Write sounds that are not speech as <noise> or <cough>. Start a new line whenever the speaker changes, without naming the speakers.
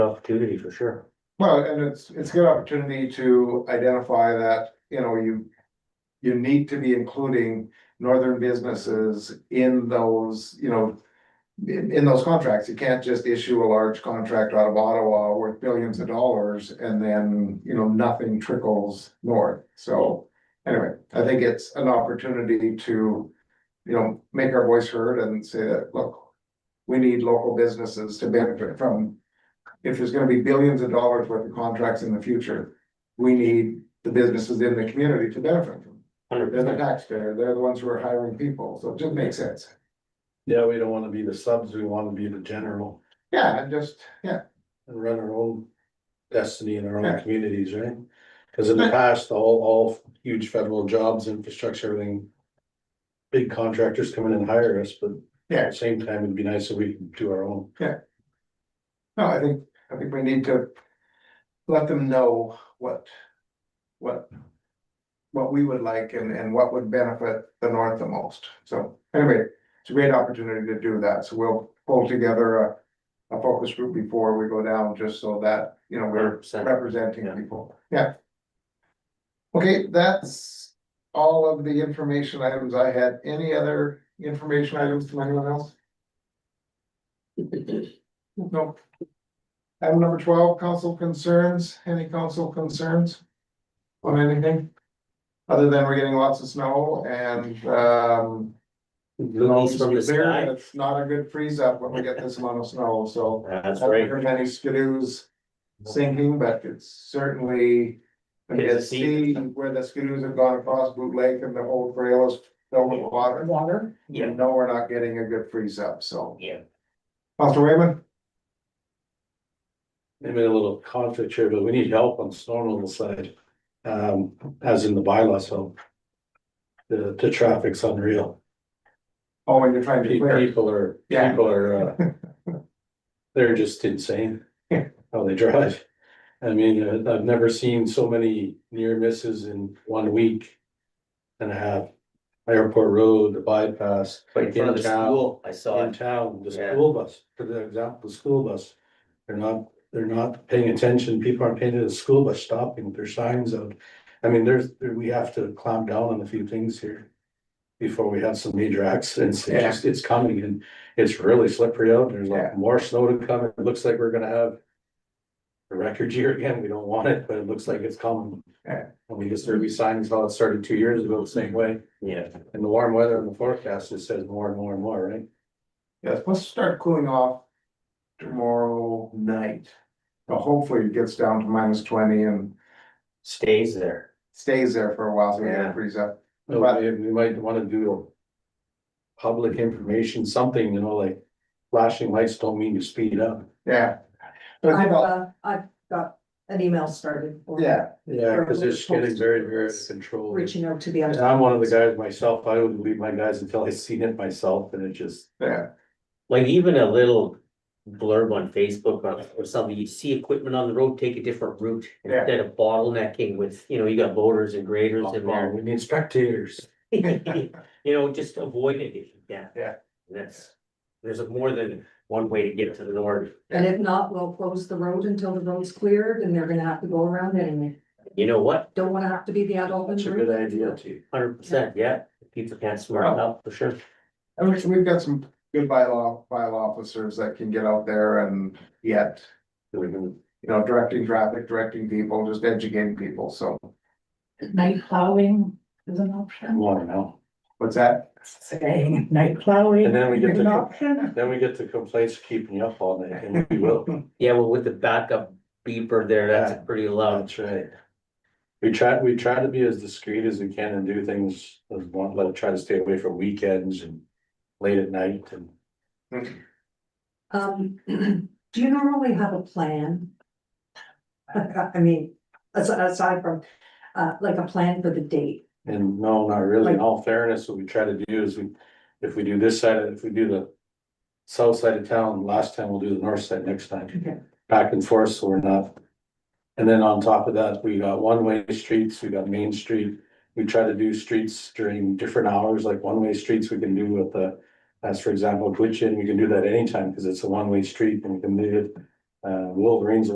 opportunity for sure.
Well, and it's, it's a good opportunity to identify that, you know, you. You need to be including northern businesses in those, you know. In, in those contracts, you can't just issue a large contract out of Ottawa worth billions of dollars and then, you know, nothing trickles north, so. Anyway, I think it's an opportunity to, you know, make our voice heard and say that, look. We need local businesses to benefit from if there's gonna be billions of dollars worth of contracts in the future, we need the businesses in the community to benefit from.
Hundred
They're the
percent.
taxpayer, they're the ones who are hiring people, so it just makes sense.
Yeah, we don't wanna be the subs, we wanna be the general
Yeah, and just, yeah,
and run our own destiny in our
Yeah.
own communities, right? Cause in the past, all, all huge federal jobs, infrastructure, everything. Big contractors come in and hire us, but
Yeah.
at the same time, it'd be nice if we could do our own.
no, I think, I think we need to let them know what, what, what we would like and, and what would benefit the north the most. So anyway, it's a great opportunity to do that, so we'll pull together a, a focus group before we go down, just so that, you know, we're
Hundred percent.
representing
Yeah.
people, yeah. Okay, that's all of the information items I had. Any other information items from anyone else? No. Item number twelve, council concerns. Any council concerns? On anything? Other than we're getting lots of snow and, um.
Looking from the
it's clear
sky.
and It's not a good freeze up when we get this amount of snow, so.
That's
I haven't
right.
heard many skidoos sinking, but it's certainly. I mean,
It's
it's see
deep.
where the skidoos have gone across Boot Lake and the whole trail is filled with water. Water.
Yeah.
You know, we're not getting a good freeze up, so.
Yeah.
Pastor Raymond,
Maybe a little conflict here, but we need help on snow removal side, um, as in the bylaw, so. The, the traffic's unreal.
oh, when you're trying to clear,
People are,
Yeah.
people are, uh,
<laughs>
they're just insane.
Yeah.
How they drive. I mean, uh, I've never seen so many near misses in one week. And a half. Airport Road, the bypass,
Right in front of the
In town.
school, I saw
in
it.
town, the
Yeah.
school bus, for the example, the school bus. They're not, they're not paying attention. People aren't paying attention to the school bus stopping with their signs out. I mean, there's, there- we have to clamp down on a few things here. Before we have some major accidents. It's
Yeah.
just, it's coming and it's really slippery out. There's like more snow to come. It looks like we're gonna have. A record year again. We don't want it, but it looks like it's coming.
Yeah.
And we just, there'll be signs, well, it started two years ago the same way.
Yeah.
And the warm weather in the forecast, it says more and more and more, right?
yeah, it's supposed to start cooling off tomorrow night. So hopefully it gets down to minus twenty and
Stays there.
stays there for a while, so we
Yeah.
don't freeze up.
No,
But-
we, we might wanna do. Public information, something, you know, like flashing lights don't mean you speed up.
Yeah. But I think
I've,
I'll-
uh, I've got an email started. for
Yeah,
Yeah, cause it's getting very, very controlled.
Reaching out to the.
And
other-
I'm one of the guys myself, I wouldn't leave my guys until I seen it myself and it just,
yeah,
Like even a little blurb on Facebook or- or something, you see equipment on the road, take a different route.
Yeah.
Instead of bottlenecking with, you know, you got loaders and graders in
oh,
there.
we need spectators.
<laughs> You know, just avoid it if you can.
Yeah.
That's, there's more than one way to get to the north.
And if not, we'll close the road until the road's cleared and they're gonna have to go around anyway.
You know what?
Don't wanna have to be the adult. in
That's a
the
good
room.
idea too.
Hundred percent, yeah. People can't smart up for sure.
I mean, we've got some good bylaw, bylaw officers that can get out there and yet,
We can
you know, directing traffic, directing people, just educating people, so.
Night plowing is an option,
Come on now.
What's that?
saying night plowing
And then we get
is an
to-
option.
Then we get the complaints keeping you up all night and we <laughs> will.
Yeah, well, with the backup beeper there, that's a pretty loud.
That's right. We try, we try to be as discreet as we can and do things, as one, like try to stay away from weekends and late at night and.
Um, <clears throat> do you normally have a plan? <laughs> I mean, as- aside from, uh, like a plan for the date,
And no, not really, in
Like-
all fairness, what we try to do is we, if we do this side, of- if we do the. South side of town, last time we'll do the north side next
Okay.
time, back and forth, so we're not. And then on top of that, we got one-way streets, we got main street, we try to do streets during different hours, like one-way streets we can do with the. As for example, Twitchin, we can do that anytime, cause it's a one-way street and we can do it Uh, Wolverine's